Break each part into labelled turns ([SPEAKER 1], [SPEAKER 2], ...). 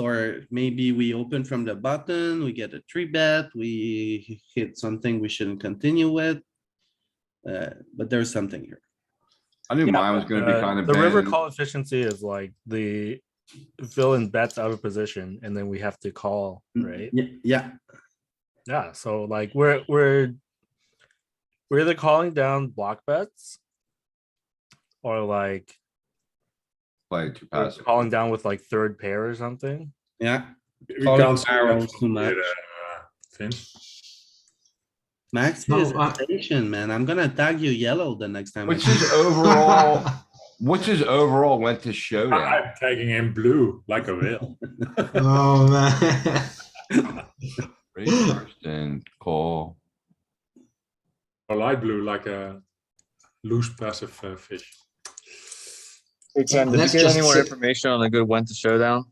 [SPEAKER 1] or maybe we open from the button, we get a three bet, we hit something we shouldn't continue with. Uh, but there's something here.
[SPEAKER 2] I knew
[SPEAKER 3] Yeah,
[SPEAKER 2] mine was gonna be
[SPEAKER 4] Uh,
[SPEAKER 2] kind of
[SPEAKER 4] the river
[SPEAKER 2] bad.
[SPEAKER 4] call efficiency is like the villain bets out of position and then we have to call
[SPEAKER 2] Mm-hmm.
[SPEAKER 4] right
[SPEAKER 1] Ye- Yeah,
[SPEAKER 4] yeah so like we're we're we're either calling down block bets or like
[SPEAKER 2] Play too
[SPEAKER 4] we're
[SPEAKER 2] passive.
[SPEAKER 4] calling down with like third pair or something
[SPEAKER 1] yeah.
[SPEAKER 5] We
[SPEAKER 1] Calling
[SPEAKER 5] can't see
[SPEAKER 1] barrels
[SPEAKER 5] that
[SPEAKER 1] too much.
[SPEAKER 5] here, uh, Finn.
[SPEAKER 1] Max
[SPEAKER 6] No,
[SPEAKER 1] is
[SPEAKER 6] I-
[SPEAKER 1] patient, man. I'm gonna tag you yellow the next time. I
[SPEAKER 2] Which is overall, which is overall went to showdown.
[SPEAKER 5] I'm taking him blue like a whale.
[SPEAKER 6] Oh, man.
[SPEAKER 2] Raise first and call.
[SPEAKER 5] or light blue like a loose passive uh, fish.
[SPEAKER 7] Hey, Ken, did
[SPEAKER 6] Let's
[SPEAKER 7] you get
[SPEAKER 6] just
[SPEAKER 7] any more
[SPEAKER 6] sit-
[SPEAKER 7] information on a good when to showdown?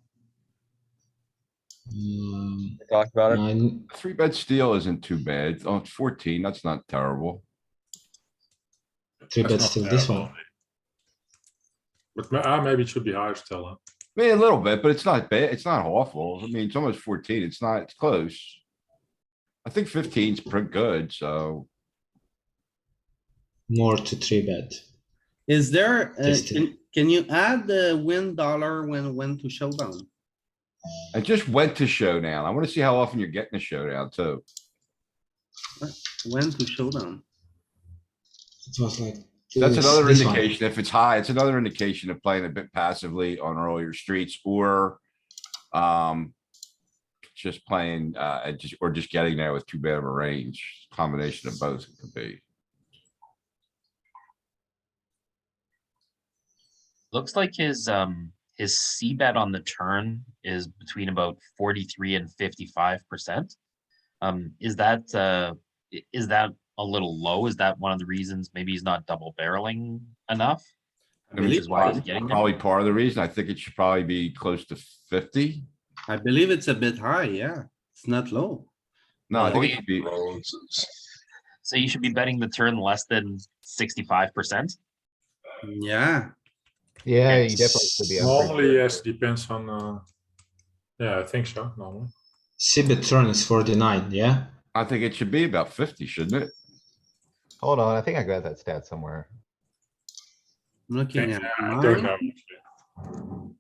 [SPEAKER 6] Um,
[SPEAKER 7] We talked about it.
[SPEAKER 6] nine-
[SPEAKER 2] Three bet steal isn't too bad. Oh, it's fourteen. That's not terrible.
[SPEAKER 6] Three
[SPEAKER 5] That's
[SPEAKER 6] bets
[SPEAKER 5] not
[SPEAKER 6] to this
[SPEAKER 5] terrible.
[SPEAKER 6] one.
[SPEAKER 5] But ma- ah, maybe it should be higher still. huh?
[SPEAKER 2] I mean, a little bit, but it's not bad. It's not awful. I mean, it's almost fourteen. It's not, it's close. I think 15's pretty good, so
[SPEAKER 6] More to three bet.
[SPEAKER 1] Is there, uh,
[SPEAKER 6] Just to-
[SPEAKER 1] can, can you add the win dollar when, when to showdown?
[SPEAKER 2] I just went to showdown. I wanna see how often you're getting a showdown too.
[SPEAKER 1] When to showdown?
[SPEAKER 6] It was like.
[SPEAKER 2] That's
[SPEAKER 6] this-
[SPEAKER 2] another
[SPEAKER 6] this one.
[SPEAKER 2] indication. If it's high, it's another indication of playing a bit passively on earlier streets or um just playing uh and just or just getting there with too bad of a range. Combination of both could be.
[SPEAKER 8] Looks like his, um, his C bet on the turn is between about forty-three and fifty-five percent. Um, is that, uh, i- is that a little low? Is that one of the reasons maybe he's not double barreling enough?
[SPEAKER 2] I mean,
[SPEAKER 8] Which
[SPEAKER 1] believe
[SPEAKER 8] is why he's
[SPEAKER 2] prob-
[SPEAKER 8] getting there?
[SPEAKER 2] Probably part of the reason. I think it should probably be close to fifty.
[SPEAKER 1] I believe it's a bit high, yeah. It's not low.
[SPEAKER 2] No, I
[SPEAKER 8] Yeah.
[SPEAKER 2] think it should be,
[SPEAKER 8] So you should be betting the turn less than sixty-five percent?
[SPEAKER 1] Yeah,
[SPEAKER 9] Yeah, you definitely should be. on pretty
[SPEAKER 5] Normally,
[SPEAKER 9] good.
[SPEAKER 5] yes, depends on. Uh, yeah, I think so. Normally,
[SPEAKER 6] Cbet turn is forty-nine, yeah?
[SPEAKER 2] I think it should be about fifty, shouldn't it?
[SPEAKER 9] Hold on, I think I got that stat somewhere.
[SPEAKER 1] I'm looking at
[SPEAKER 5] I
[SPEAKER 1] mine.
[SPEAKER 5] don't know.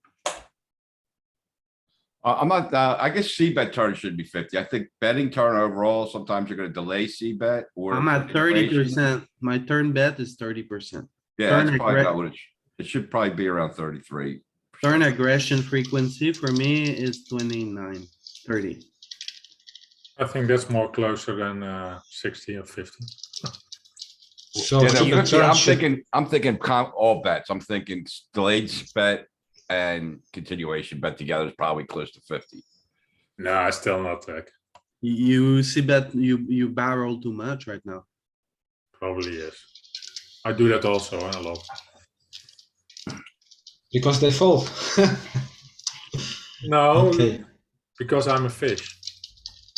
[SPEAKER 2] I, I'm not, uh, I guess C bet turn should be fifty. I think betting turn overall, sometimes you're gonna delay C bet or.
[SPEAKER 1] I'm at thirty
[SPEAKER 2] continuation.
[SPEAKER 1] percent. My turn bet is thirty percent.
[SPEAKER 2] Yeah,
[SPEAKER 1] Turn
[SPEAKER 2] that's probably
[SPEAKER 1] regret-
[SPEAKER 2] about what it, sh- it should probably be around thirty-three.
[SPEAKER 1] Turn aggression frequency for me is 29, 30.
[SPEAKER 5] I think that's more closer than uh, sixty or fifty.
[SPEAKER 6] So
[SPEAKER 2] Yeah, no,
[SPEAKER 6] Cbet
[SPEAKER 2] 50,
[SPEAKER 6] turn
[SPEAKER 2] I'm
[SPEAKER 6] should,
[SPEAKER 2] thinking, I'm thinking com, all bets. I'm thinking s- delayed s- bet and continuation bet together is probably close to fifty.
[SPEAKER 5] No, it's still not that.
[SPEAKER 1] You see that you, you barrel too much right now.
[SPEAKER 5] Probably is. I do that also huh, a lot.
[SPEAKER 6] because they fold.
[SPEAKER 2] Oh,
[SPEAKER 5] No,
[SPEAKER 6] Okay,
[SPEAKER 5] because I'm a fish.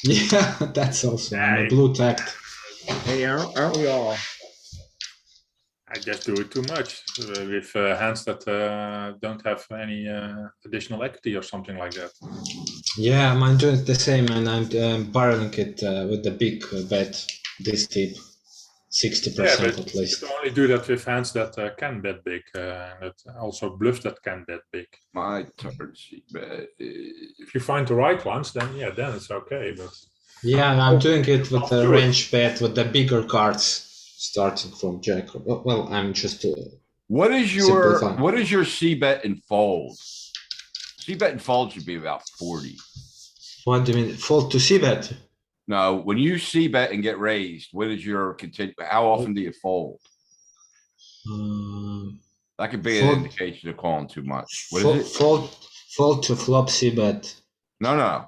[SPEAKER 6] yeah, that's also, I'm a blue tacked.
[SPEAKER 3] Hey, aren't, aren't we all?
[SPEAKER 5] I just do it too much uh, with uh, hands that uh, don't have any uh, additional equity or something like that.
[SPEAKER 6] Yeah, mine doing the same, and I'm um, barreling it uh, with the big uh, bet this deep, sixty percent at
[SPEAKER 5] you
[SPEAKER 6] least.
[SPEAKER 5] can only do that with hands that uh, can bet big, uh, and that also bluffs that can bet big.
[SPEAKER 2] My turn C bet is.
[SPEAKER 5] If you find the right ones, then yeah, then it's okay. But
[SPEAKER 6] Yeah, and
[SPEAKER 2] Oh,
[SPEAKER 6] I'm doing it with the
[SPEAKER 5] Do it.
[SPEAKER 6] range bet with the bigger cards, starting from jack. or- Well, I'm just uh,
[SPEAKER 2] What is
[SPEAKER 6] Simple
[SPEAKER 2] your,
[SPEAKER 6] fun.
[SPEAKER 2] what is your C bet and fold? C bet and fold should be about forty.
[SPEAKER 6] what do you mean? Fold to see bet.
[SPEAKER 2] No, when you C bet and get raised, what is your continue, how often do you fold?
[SPEAKER 6] Um,
[SPEAKER 2] That could be an
[SPEAKER 6] Fold.
[SPEAKER 2] indication of calling too much. What
[SPEAKER 6] fold,
[SPEAKER 2] is it?
[SPEAKER 6] fold, fold to flop see bet.
[SPEAKER 2] No, no.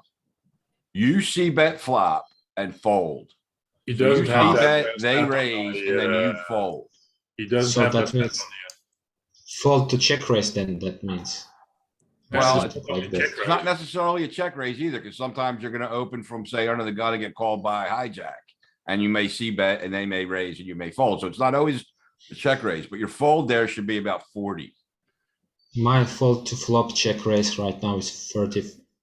[SPEAKER 2] You C bet flop and fold.
[SPEAKER 5] he
[SPEAKER 2] You
[SPEAKER 5] doesn't
[SPEAKER 2] see
[SPEAKER 5] have
[SPEAKER 2] that,
[SPEAKER 5] that.
[SPEAKER 2] they
[SPEAKER 5] stat on
[SPEAKER 2] raise
[SPEAKER 5] the,
[SPEAKER 2] and then you
[SPEAKER 5] uh,
[SPEAKER 2] fold.
[SPEAKER 5] He doesn't
[SPEAKER 6] So
[SPEAKER 5] have
[SPEAKER 6] that
[SPEAKER 5] that. stat
[SPEAKER 6] means-
[SPEAKER 5] on the, uh,
[SPEAKER 6] Fold to check raise. Then that means.
[SPEAKER 2] Well,
[SPEAKER 5] that's
[SPEAKER 6] it's
[SPEAKER 5] probably
[SPEAKER 6] like this.
[SPEAKER 5] check
[SPEAKER 2] It's not
[SPEAKER 5] raise.
[SPEAKER 2] necessarily a check raise either, because sometimes you're gonna open from, say, under the gun and get called by hijack. And you may see bet and they may raise and you may fold. So it's not always a check raise, but your fold there should be about forty.
[SPEAKER 6] Mine fold to flop check raise right now is thirty